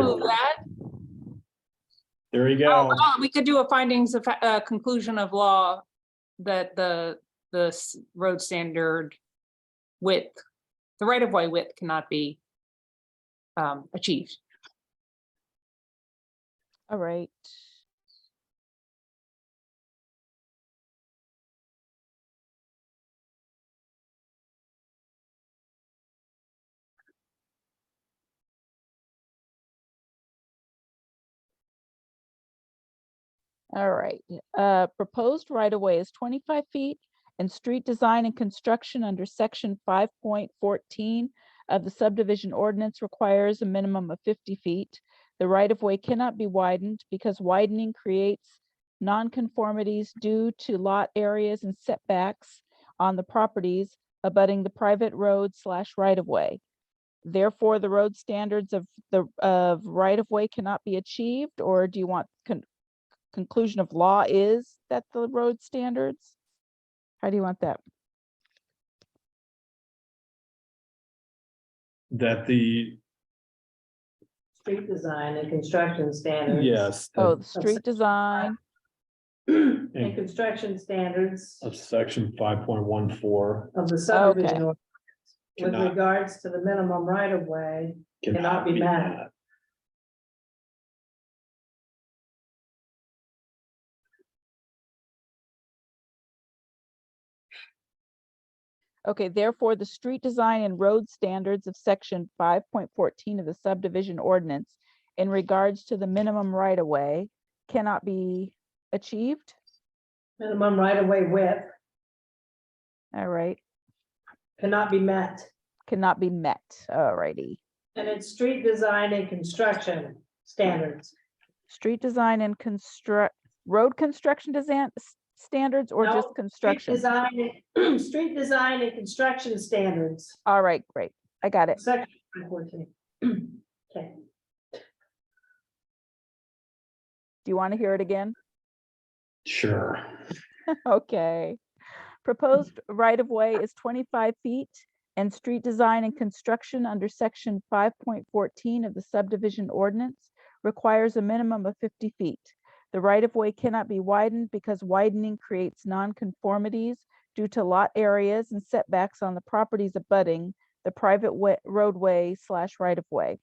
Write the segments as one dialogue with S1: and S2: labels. S1: approve that.
S2: There you go.
S1: Oh, oh, We could do a findings of, fa- uh, conclusion of law that the, the s- road standard width, the right of way width cannot be um, achieved.
S3: All right. All right, uh, proposed right of way is twenty-five feet and street design and construction under section five point fourteen of the subdivision ordinance requires a minimum of fifty feet. The right of way cannot be widened because widening creates nonconformities due to lot areas and setbacks on the properties abutting the private road slash right of way. Therefore, the road standards of the of right of way cannot be achieved, or do you want con- conclusion of law is that the road standards? How do you want that?
S2: That the,
S4: Street design and construction standards.
S2: yes. the-
S3: Oh, the street design,
S4: And construction standards
S2: Of section five point one four
S4: of the subdivision
S3: Okay.
S4: ordinance with
S2: Cannot-
S4: regards to the minimum right of way.
S2: cannot be
S4: met.
S2: met.
S3: Okay, therefore, the street design and road standards of section five point fourteen of the subdivision ordinance in regards to the minimum right of way cannot be achieved,
S4: Minimum right of way width
S3: all right,
S4: cannot be met.
S3: cannot be met, all righty.
S4: And it's street design and construction standards.
S3: Street design and construct, road construction design, standards or
S4: No,
S3: just
S4: Street
S3: construction?
S4: design, and- street design and construction standards,
S3: All right, great, I got it.
S4: section fourteen. Okay,
S3: Do you want to hear it again?
S2: Sure.
S3: Okay. Proposed right of way is twenty-five feet and street design and construction under section five point fourteen of the subdivision ordinance requires a minimum of fifty feet. The right of way cannot be widened because widening creates nonconformities due to lot areas and setbacks on the properties abutting the private wa- roadway slash right of way.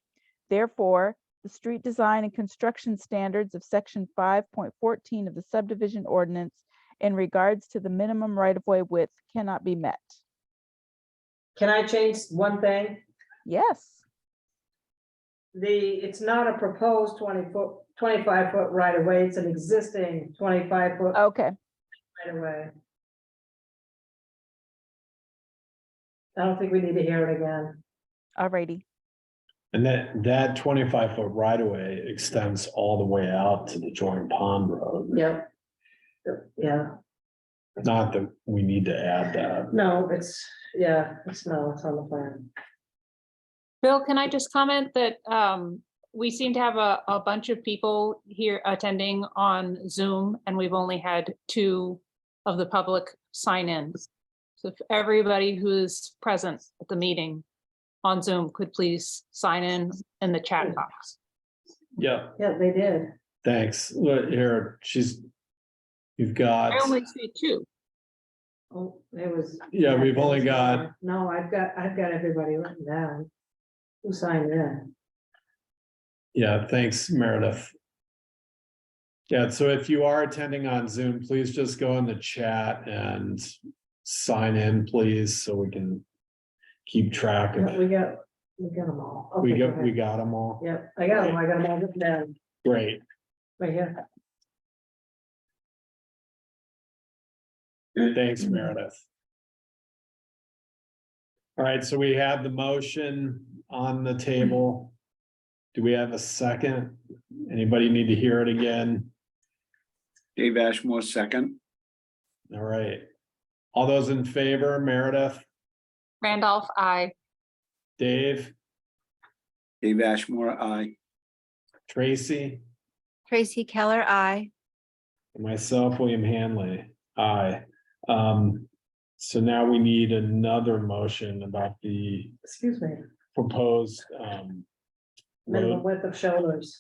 S3: Therefore, the street design and construction standards of section five point fourteen of the subdivision ordinance in regards to the minimum right-of-way width cannot be met.
S4: can I change one thing?
S3: Yes,
S4: The, it's not a proposed twenty foot, twenty-five foot right of way, it's an existing twenty-five foot
S3: okay,
S4: right away. I don't think we need to hear it again.
S3: alrighty,
S2: And that, that twenty-five foot right of way extends all the way out to the joint pond road.
S4: Yep. Yeah,
S2: Not that we need to add that.
S4: no, it's, yeah, it's no, it's on the plan.
S1: Bill, can I just comment that um, we seem to have a, a bunch of people here attending on Zoom, and we've only had two of the public sign in. So if everybody who's present at the meeting on Zoom could please sign in in the chat box.
S2: Yeah,
S4: Yeah, they did.
S2: thanks. Look here, she's, you've got,
S1: I only see two.
S4: Oh, it was.
S2: Yeah, we've
S4: it
S2: only
S4: was-
S2: got-
S4: No, I've got, I've got everybody written down. Who signed in?
S2: yeah, thanks Meredith. Yeah, so if you are attending on Zoom, please just go in the chat and sign in, please, so we can keep track of
S4: Yeah, We got, we got them all.
S2: We
S4: Okay,
S2: got, we
S4: ahead.
S2: got them all.
S4: Yep, I got them, I got them all written down,
S2: Great.
S4: right here.
S2: Thanks, Meredith. All right, so we have the motion on the table. Do we have a second? Anybody need to hear it again?
S5: Dave Ashmore, second.
S2: All right. All those in favor, Meredith,
S1: Randolph, I.
S2: Dave,
S5: Dave Ashmore, aye.
S2: Tracy,
S6: Tracy Keller, I.
S2: and myself, William Hanley. Aye. Um, so now we need another motion about the
S4: Excuse me,
S2: proposed um
S4: minimum width of shoulders.